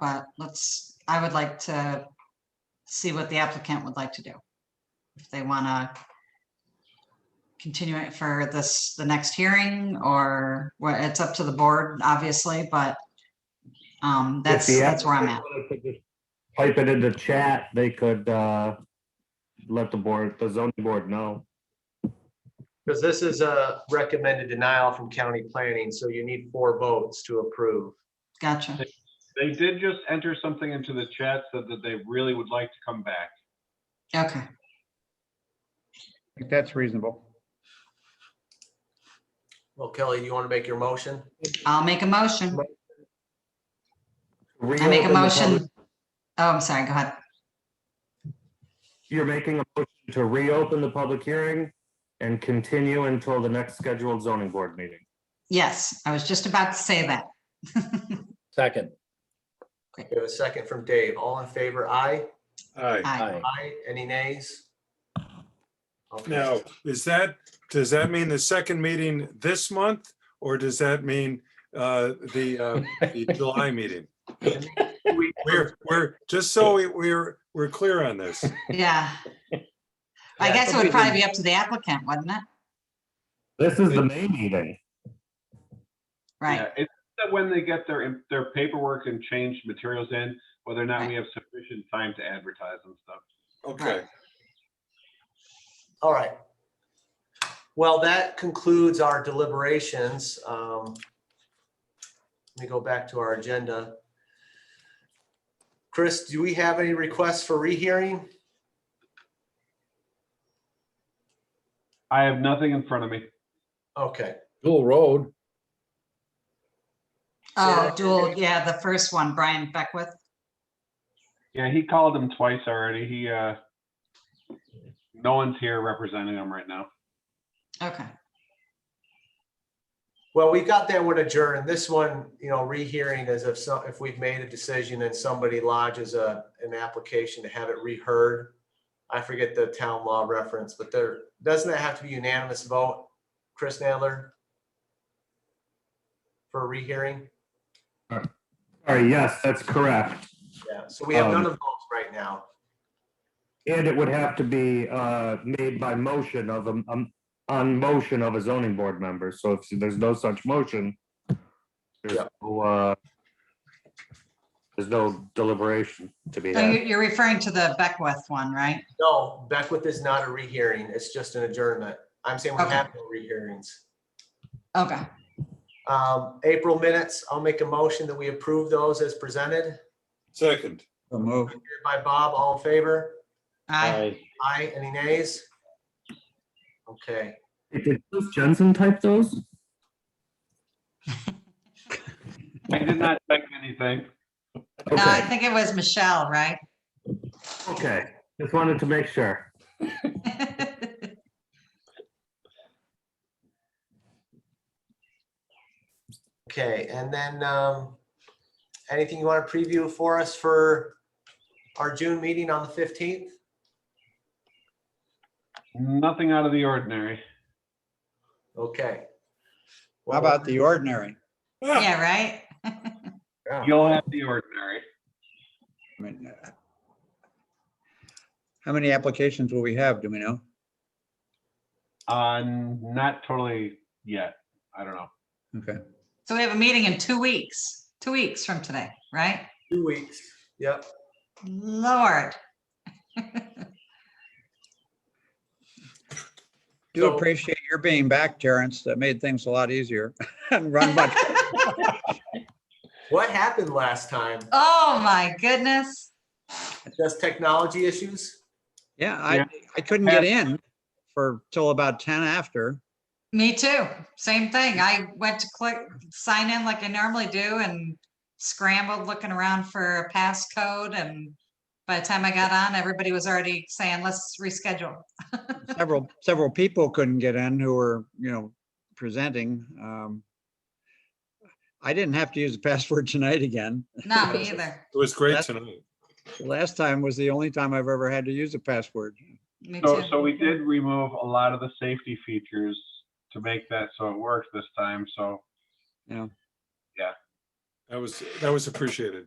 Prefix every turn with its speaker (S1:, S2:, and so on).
S1: but let's, I would like to see what the applicant would like to do. If they want to continue it for this, the next hearing, or, well, it's up to the board, obviously, but um, that's,
S2: If the
S1: that's where I'm at.
S2: applicant wanted to just Type it into chat, they could uh, let the board, the zoning board know.
S3: Because this is a recommended denial from county planning, so you need four votes to approve.
S1: Gotcha.
S4: They did just enter something into the chat, said that they really would like to come back.
S1: Okay.
S5: think that's reasonable.
S3: Well, Kelly, you want to make your motion?
S1: I'll make a motion. I make a
S2: Reopen the public-
S1: motion. Oh, I'm sorry. Go ahead.
S2: You're making a motion to reopen the public hearing and continue until the next scheduled zoning board meeting.
S1: Yes, I was just about to say that.
S6: Second.
S3: We have a second from Dave. All in favor, aye?
S7: Aye.
S1: Aye.
S3: Aye. Any nays? Okay.
S7: Now, is that, does that mean the second meeting this month? Or does that mean uh, the uh, the July meeting?
S3: We-
S7: We're, we're, just so we- we're, we're clear on this.
S1: Yeah. I
S3: Yeah,
S1: guess it
S3: something
S1: would probably be up to the applicant, wouldn't it?
S2: This is the May meeting.
S1: Right.
S4: Yeah, It's that when they get their, their paperwork and change materials in, whether or not we have sufficient time to advertise and stuff.
S7: Okay.
S3: All right. Well, that concludes our deliberations. Um, Let me go back to our agenda. Chris, do we have any requests for rehearing?
S4: I have nothing in front of me.
S3: Okay.
S6: Dual Road.
S1: Oh, dual, yeah, the first one, Brian Beckwith.
S4: Yeah, he called him twice already. He, uh, no one's here representing him right now.
S1: Okay.
S3: Well, we got that one adjourned. This one, you know, rehearing is if some, if we've made a decision and somebody lodges a, an application to have it reheard. I forget the town law reference, but there, doesn't that have to be unanimous vote? Chris Nadler? For a rehearing?
S2: All right, yes, that's correct.
S3: Yeah, so we have none
S2: Um,
S3: of those right now.
S2: And it would have to be uh, made by motion of, a- um, on motion of a zoning board member. So if there's no such motion, there's
S3: Yeah.
S2: no, uh, there's no deliberation to be
S1: So
S2: had.
S1: you're, Oh, you're referring to the Beckwith one, right?
S3: No, Beckwith is not a rehearing. It's just an adjournment. I'm saying we
S1: Okay.
S3: have no rehearings.
S1: Okay.
S3: Um, April minutes, I'll make a motion that we approve those as presented.
S7: Second.
S3: By Bob, all in favor?
S1: Aye.
S3: Aye, any nays? Okay,
S2: Did Bruce Jensen type those?
S4: I did not check anything.
S1: No, I
S2: Okay,
S1: think it was Michelle, right?
S2: okay. Just wanted to make sure.
S3: okay, and then, um, anything you want to preview for us for our June meeting on the fifteenth?
S4: Nothing out of the ordinary.
S3: Okay.
S8: How about the ordinary?
S1: Yeah, right?
S4: You'll have the ordinary.
S8: I mean, uh, How many applications will we have? Do we know?
S4: Uh, not totally yet. I don't know.
S8: Okay.
S1: So we have a meeting in two weeks, two weeks from today, right?
S3: Two weeks, yep.
S1: Lord.
S8: Do
S3: So-
S8: appreciate your being back, Terrence. That made things a lot easier and run much.
S3: What happened last time?
S1: Oh, my goodness.
S3: Just technology issues?
S8: Yeah, I,
S4: Yeah.
S8: I couldn't get in for till about 10 after.
S1: Me too. Same thing. I went to click, sign in like I normally do and scrambled looking around for a passcode and by the time I got on, everybody was already saying, let's reschedule.
S8: Several, several people couldn't get in who were, you know, presenting. Um I didn't have to use the password tonight again.
S1: Not me either.
S7: It was great
S8: That's-
S7: tonight.
S8: Last time was the only time I've ever had to use a password.
S1: Me
S4: So,
S1: too.
S4: so we did remove a lot of the safety features to make that so it worked this time, so.
S8: Yeah.
S7: That was, that was appreciated.